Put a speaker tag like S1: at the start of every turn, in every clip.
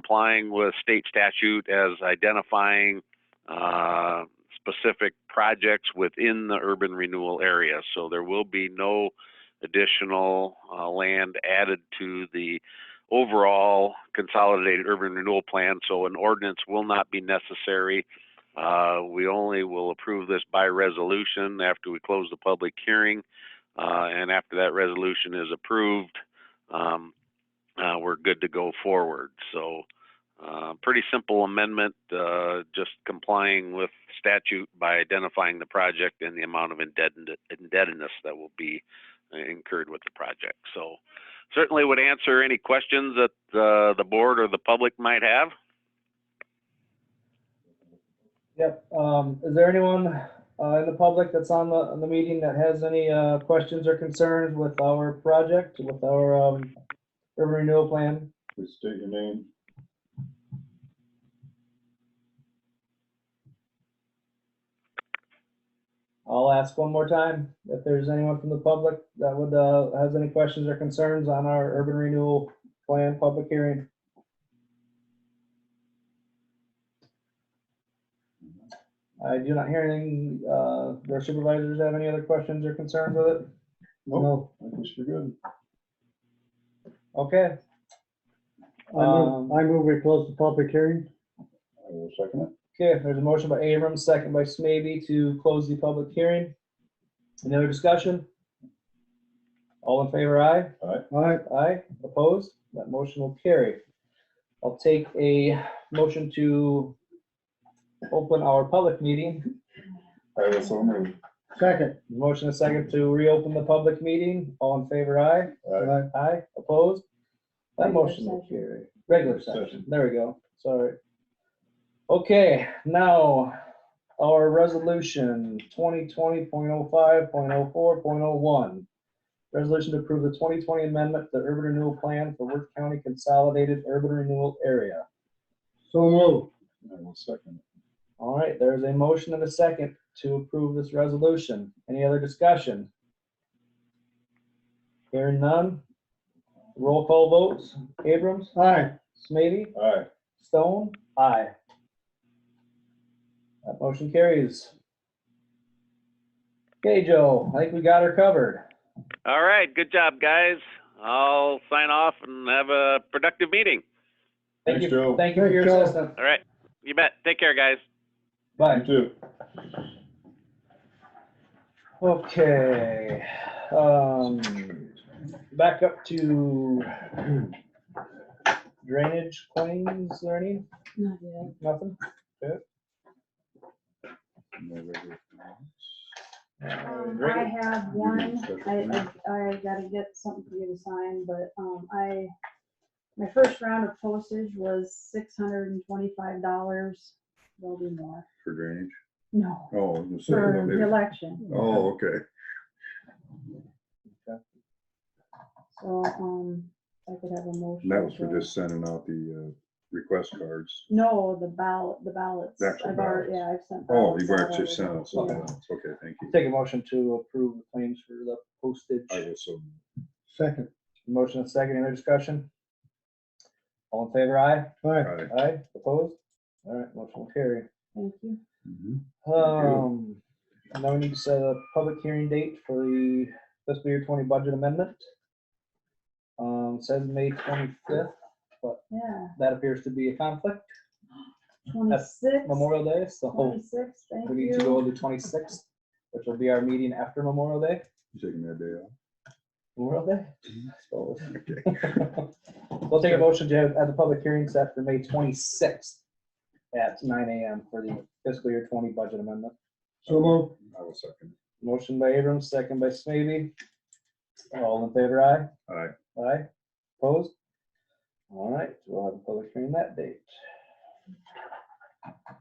S1: complying with state statute as identifying uh, specific projects within the urban renewal area. So there will be no additional uh, land added to the overall consolidated urban renewal plan. So an ordinance will not be necessary. Uh, We only will approve this by resolution after we close the public hearing. Uh, And after that resolution is approved, um, uh, we're good to go forward. So uh, pretty simple amendment, uh, just complying with statute by identifying the project and the amount of indebted- indebtedness that will be uh, incurred with the project. So certainly would answer any questions that uh, the board or the public might have.
S2: Yep, um, is there anyone, uh, in the public that's on the, on the meeting that has any, uh, questions or concerns with our project, with our, um, urban renewal plan?
S3: Please state your name.
S2: I'll ask one more time if there's anyone from the public that would, uh, has any questions or concerns on our urban renewal plan public hearing. I do not hear anything, uh, their supervisors have any other questions or concerns with it?
S3: Nope, I think we're good.
S2: Okay,
S4: I move,
S2: Um,
S4: I move we close the public hearing.
S3: I will second it.
S2: Okay, there's a motion by Abrams, second by Smaby to close the public hearing. Any other discussion? All in favor, aye?
S4: All right,
S2: Aye, opposed? That motion will carry. I'll take a motion to open our public meeting.
S3: I will so move.
S4: second.
S2: Motion a second to reopen the public meeting. All in favor, aye?
S4: All
S3: Aye.
S4: right,
S2: Aye, opposed? That
S5: Regular
S2: motion will
S5: session.
S2: carry. Regular session,
S3: Session.
S2: there we go, sorry. Okay, now, our resolution twenty twenty point oh five, point oh four, point oh one. Resolution to approve the twenty twenty amendment to the urban renewal plan for Worth County Consolidated Urban Renewal Area.
S4: So move.
S3: I will second it.
S2: All right, there's a motion and a second to approve this resolution. Any other discussion? Hearing none. Roll call votes. Abrams,
S4: All right,
S2: Smitty,
S3: Aye.
S2: Stone? Aye. That motion carries. Okay, Joe, I think we got her covered.
S1: All right, good job, guys. I'll sign off and have a productive meeting.
S2: Thank
S3: Thanks,
S2: you.
S3: Joe.
S2: Thank you for your
S4: Thanks, Joe.
S2: assistance.
S1: All right, you bet. Take care, guys.
S2: Bye.
S3: You too.
S2: Okay, um, back up to drainage claims, is there any?
S5: Not yet.
S2: Nothing?
S3: No regular comments.
S5: Um, I
S2: Drainage.
S5: have one, I, I, I gotta get something for you to sign, but, um, I, my first round of postage was six hundred and twenty-five dollars. There'll be more.
S3: For drainage?
S5: No,
S3: Oh, I was
S5: for
S3: gonna
S5: the
S3: say,
S5: election.
S3: oh, okay.
S5: So, um, I could have a motion.
S3: And that was for
S5: to-
S3: just sending out the uh, request cards.
S5: No, the ballot, the ballots.
S3: The actual
S5: I've already,
S3: ballots.
S5: yeah, I've sent.
S3: Oh,
S5: ballots
S3: you've
S5: out
S3: actually
S5: already.
S3: sent out something
S5: Yeah.
S3: else. Okay, thank you.
S2: Take a motion to approve the claims for the postage.
S3: I will so. move.
S4: second.
S2: Motion and second, any other discussion? All in favor, aye?
S4: All right,
S3: Aye.
S2: Aye, opposed? All right, motion will carry.
S5: Thank you.
S3: Mhm.
S2: Um, now we need to set a public hearing date for the fiscal year twenty budget amendment. Um, says May twenty-fifth,
S5: Yeah,
S2: that appears to be a conflict,
S5: twenty-six,
S2: Memorial Day, so
S5: twenty-six, thank
S2: we need to go
S5: you.
S2: to twenty-sixth, which will be our meeting after Memorial Day,
S3: You taking that day off?
S2: Memorial Day. So,
S3: Okay.
S2: We'll take a motion to have, have the public hearing set for May twenty-sixth at nine AM for the fiscal year twenty budget amendment.
S4: so move.
S3: I will second.
S2: Motion by Abrams, second by Smithy. All in favor, aye?
S3: it. Aye.
S2: Aye, opposed? All right, we'll have a public hearing that date.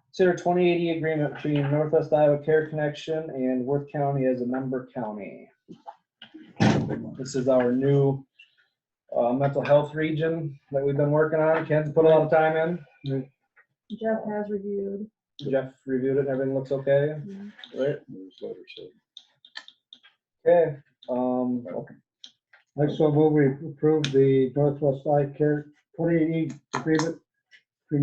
S2: Consider twenty eighty agreement between Northwest Iowa Care Connection and Worth County as a member county. This is our new uh, mental health region that we've been working on. Ken's put a lot of time
S5: Jeff has reviewed.
S2: in. Jeff reviewed it, and everything looks okay, right?
S3: There's letters, so.
S2: Okay, um,
S4: I so move we approve the Northwest Eye Care twenty-eight agreement